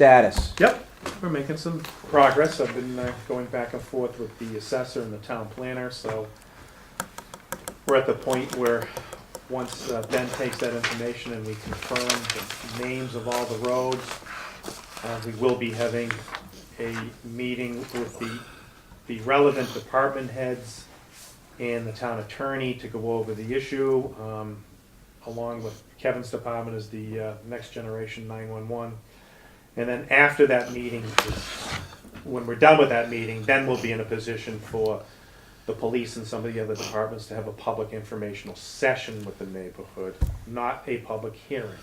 status? Yep, we're making some progress. I've been uh, going back and forth with the assessor and the town planner, so we're at the point where, once uh, Ben takes that information and we confirm the names of all the roads, uh, we will be having a meeting with the, the relevant department heads and the town attorney to go over the issue, um, along with Kevin's department is the uh, Next Generation 911. And then after that meeting, is- when we're done with that meeting, then we'll be in a position for the police and some of the other departments to have a public informational session with the neighborhood, not a public hearing.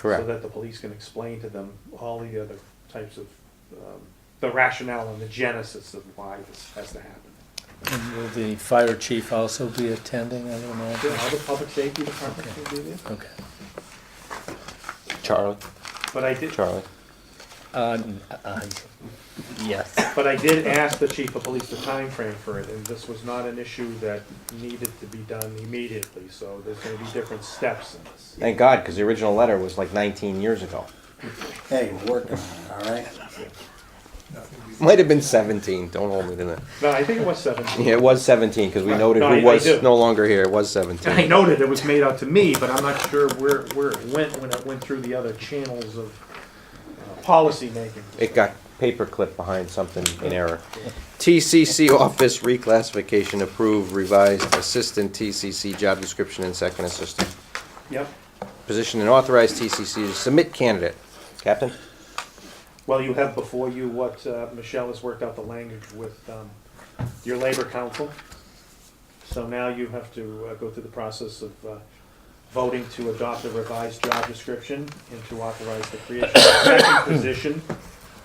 So that the police can explain to them all the other types of, um, the rationale and the genesis of why this has to happen. And will the fire chief also be attending, I don't know? All the public safety departments can do this, Okay. Charlie, but I did, Charlie. Uh, n- uh, Yes. But I did ask the chief of police the time frame for it, and this was not an issue that needed to be done immediately, so there's gonna be different steps in this. Thank God, because the original letter was like 19 years ago. Hey, we're working on it, all right? Might have been 17. Don't hold me to that. No, I think it was seventeen. Yeah, it was 17 because we Right. noted No, I- I who was do. no longer here. It was And I 17. noted it was made out to me, but I'm not sure where, where it went when it went through the other channels of uh, policymaking. It got paperclip behind something in error. TCC office reclassification approved revised assistant TCC job description and second assistant Yep, position and authorized TCC to submit candidate. Captain? well, you have before you what, uh, Michelle has worked out the language with, um, your labor council. So now you have to uh, go through the process of uh, voting to adopt a revised job description and to authorize the creation of a second position,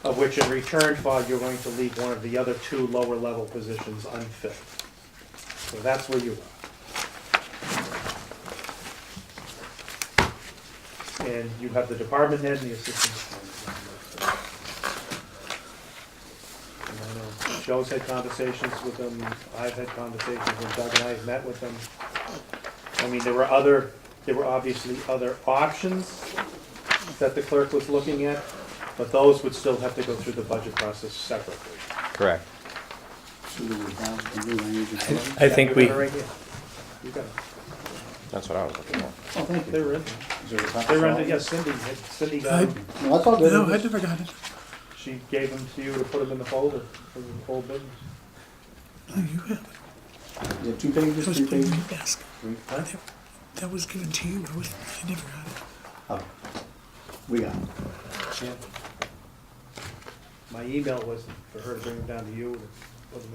of which in return for, you're going to leave one of the other two lower level positions unfilled. So that's where you are. And you have the department head and the assistant. And I know Joe's had conversations with them, I've had conversations with Doug and I've met with them. I mean, there were other, there were obviously other options that the clerk was looking at, but those would still have to go through the budget process separately. Correct. Should we have the new language in place? I think we, They're right here. You got That's what I was looking for. Oh, thank it. you. They were in, Is there a copy? they were in, yes, Cindy, had- Cindy got them. No, that's all good. No, I never got it. She gave them to you to put them in the folder for the whole business. No, you had it. Is it two pages, It was three put in pages? my desk. Three, huh? That was given to you. I, was, I never got it. Oh, we got it. Yeah. My email was for her to bring them down to you, it wasn't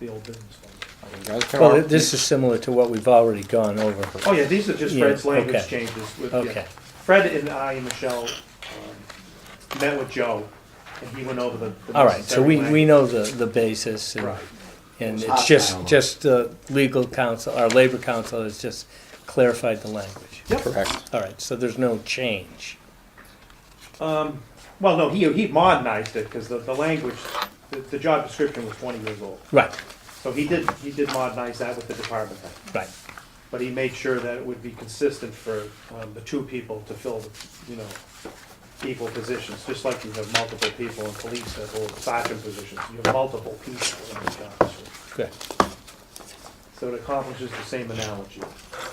in the old business folder. You guys can well, all- this is similar to what we've already gone over. Oh, yeah, these are just Yeah, Fred's language okay. changes with, yeah. Okay. Fred and I and Michelle um, met with Joe, and he went over the. the All right, so we, necessary we know the, the basis and, language. and Hostile. it's just, just uh, legal counsel, our labor counsel has just clarified the language. Right, yep. Correct. All right, so there's no change. Um, well, no, he, he modernized it, because the, the language, the, the job description was twenty years old. Right, So he did, he did modernize that with the department head. right. but he made sure that it would be consistent for um, the two people to fill, you know, equal positions, just like you have multiple people in police that hold sergeant positions, you have multiple people in the job. description. Good, So it accomplishes the same analogy.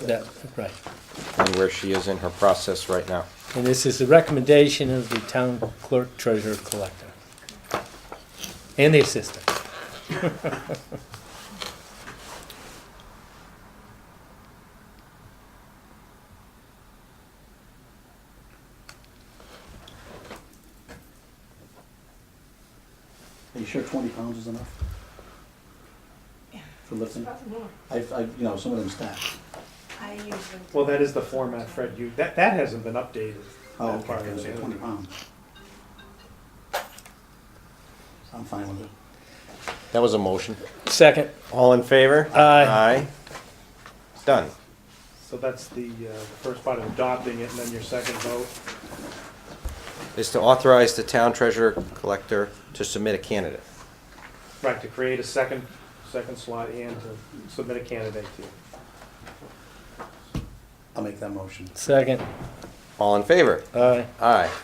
that, right. And where she is in her process right now. And this is the recommendation of the town clerk, treasurer, collector. And the assistant. Are you sure twenty pounds is enough? For lifting? I, I, you know, some of them stack. I usually. Well, that is the format, Fred, you, that, that hasn't been updated. Oh, that part okay, of so it. twenty pounds. I'm fine with it. That was a motion. Second, All in favor? Aye. Aye. It's done. So that's the uh, first part of adopting it, and then your second vote. Is to authorize the town treasurer collector to submit a candidate. Right, to create a second, second slot and to submit a candidate to you. I'll make that motion. second, All in favor? Aye. Aye.